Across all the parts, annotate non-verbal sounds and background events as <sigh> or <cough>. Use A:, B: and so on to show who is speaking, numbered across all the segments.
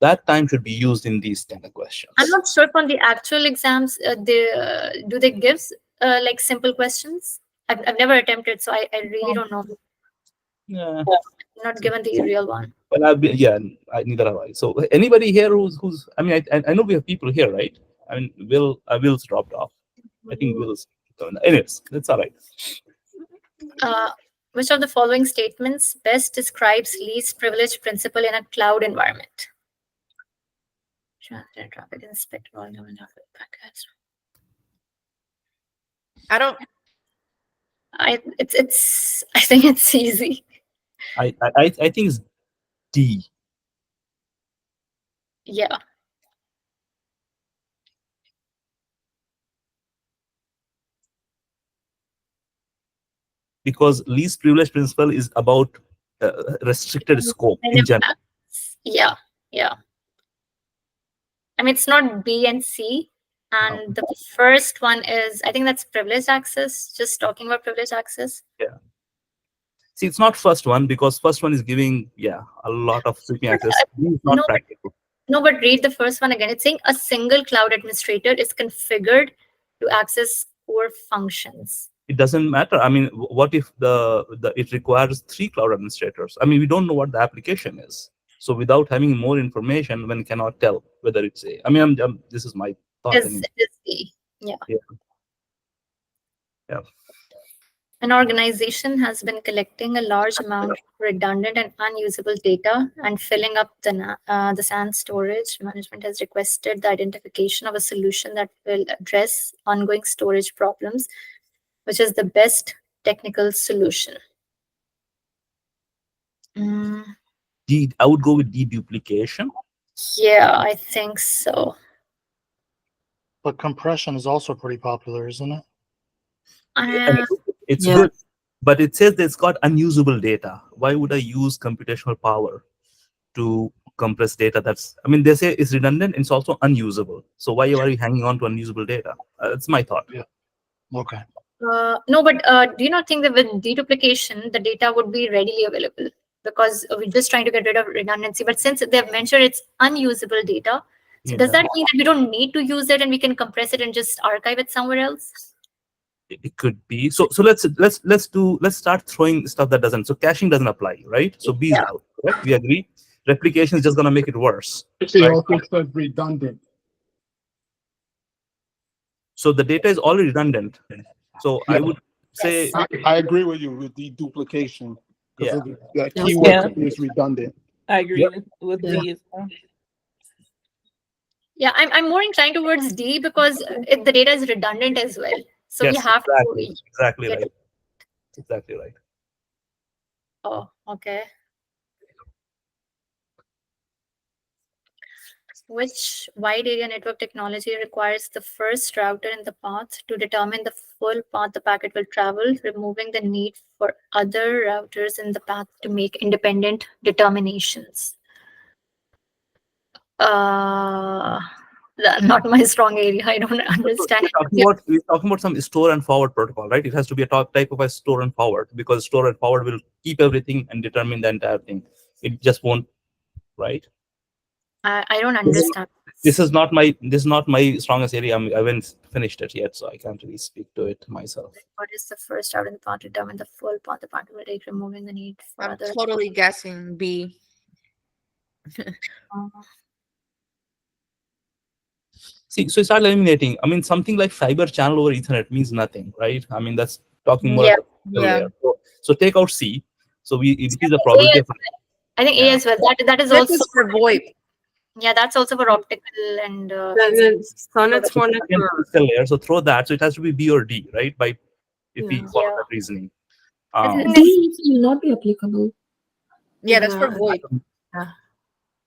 A: that time should be used in these kind of questions.
B: I'm not sure if on the actual exams, uh, they, uh, do they give uh, like simple questions? I've, I've never attempted, so I, I really don't know.
A: Yeah.
B: Not given the real one.
A: Well, I've been, yeah, I, neither have I. So anybody here who's who's I mean, I, I- I know we have people here, right? I mean, Will, uh, Will's dropped off. I think Will's. Anyways, that's all right.
B: Uh, which of the following statements best describes least privilege principle in a cloud environment? Transit and traffic inspector, all government traffic packets.
C: I don't.
B: I it's it's <laughs> I think it's easy.
A: I I I I think it's D.
B: Yeah.
A: because least privilege principle is about uh, restricted scope
B: And
A: in
B: if
A: general.
B: that's- Yeah, yeah. I mean, it's not B and C. And the first one is, I think that's privileged access, just talking about privileged access.
A: See, it's not first one because first one is giving yeah a lot of sweeping access. It's not
B: No.
A: practical.
B: No, but read the first one again. It's saying a single cloud administrator is configured to access core functions.
A: It doesn't matter. I mean, wh- what if the, the it requires three cloud administrators? I mean, we don't know what the application is. So without having more information, one cannot tell whether it's a. I mean, I'm, I'm- this is my thought.
B: Is,
A: anyway.
B: is the, yeah.
A: Yeah. Yeah.
B: An organization has been collecting a large amount of redundant and unusable data and filling up the, na- uh, the SAN storage. Management has requested the identification of a solution that will address ongoing storage problems, which is the best technical solution. Mm.
A: De- I would go with deduplication.
B: Yeah, I think so.
D: But compression is also pretty popular, isn't it?
A: And
B: Uh,
A: it- it's
C: Yeah.
A: good, but it says that it's got unusable data. Why would I use computational power to compress data? That's I mean they say it's redundant. It's also unusable. So why are you hanging on to unusable data? Uh, that's my thought.
D: Okay.
B: uh, no, but uh, do you not think that with deduplication, the data would be readily available? Because we're just trying to get rid of redundancy. But since they've mentioned it's unusable data, so
A: Yeah.
B: does that mean that we don't need to use it and we can compress it and just archive it somewhere else?
A: It it could be. So so let's let's let's do let's start throwing stuff that doesn't. So caching doesn't apply, right? So B is
B: Yeah.
A: out. Correct? We agree. Replication is just gonna make it worse.
E: It
A: Right.
E: also says redundant.
A: So the data is already redundant. So I
E: Yeah.
A: would say
E: I, I agree with you with the duplication. 'cause
A: Yeah.
E: of The
F: Yeah.
E: keyword
F: Yeah.
E: is redundant.
F: I agree
A: Yep.
F: with, with
C: Yeah.
F: D as well.
B: Yeah, I'm, I'm more inclined towards D because it, the data is redundant as well. So we
A: yes,
B: have
A: exactly,
B: to.
A: exactly
B: get-
A: right. Exactly right.
B: Oh, okay. Which wide area network technology requires the first router in the path to determine the full path the packet will travel, removing the need for other routers in the path to make independent determinations? Uh, <laughs> the- not my strong area. I don't <laughs> understand.
A: We're talking, about, we're talking about some store and forward protocol, right? It has to be a top type of a store and forward because store and forward will keep everything and determine the entire thing. It just won't, right?
B: I, I don't understand.
A: This is not my this is not my strongest area. I'm, I haven't finished it yet, so I can't really speak to it myself.
B: What is the first route in the path to determine the full path the packet will take, removing the need for
C: I'm
B: other?
C: totally guessing B.
B: Uh,
A: See, so you start eliminating. I mean, something like fiber channel over Ethernet means nothing, right? I mean, that's talking more.
B: Yeah.
A: about
C: Yeah.
A: layer. So, so take out C. So we increase the probability. of-
B: I think A
A: Yeah.
B: as well. That that is
C: This
B: also
C: is for VoIP.
B: yeah. That's also for optical and uh,
F: Then it's Sonnet's one of
A: Again, it's a layer. So throw that. So it has to be B or D, right? By if we
F: Yeah.
A: follow
B: Yeah.
A: that reasoning.
B: I
A: Um,
B: think
G: D is- will not be applicable.
C: Yeah, that's for
F: Yeah.
C: VoIP.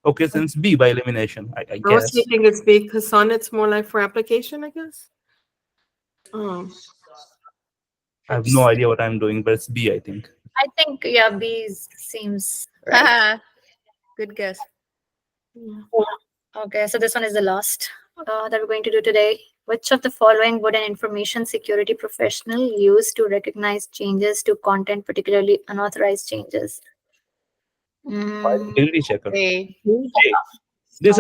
A: okay, since B by elimination, I, I
F: I was
A: guess.
F: thinking it's B because Sonnet's more like for application, I guess. Oh,
A: I have no idea what I'm doing, but it's B, I think.
B: I think yeah. B is- seems right.
C: Haha. <laughs> Good guess.
F: yeah.
B: okay. So this one is the last uh, that we're going to do today. Which of the following would an information security professional use to recognize changes to content, particularly unauthorized changes?
A: Why
B: Mm,
A: Integrity checker.
C: A.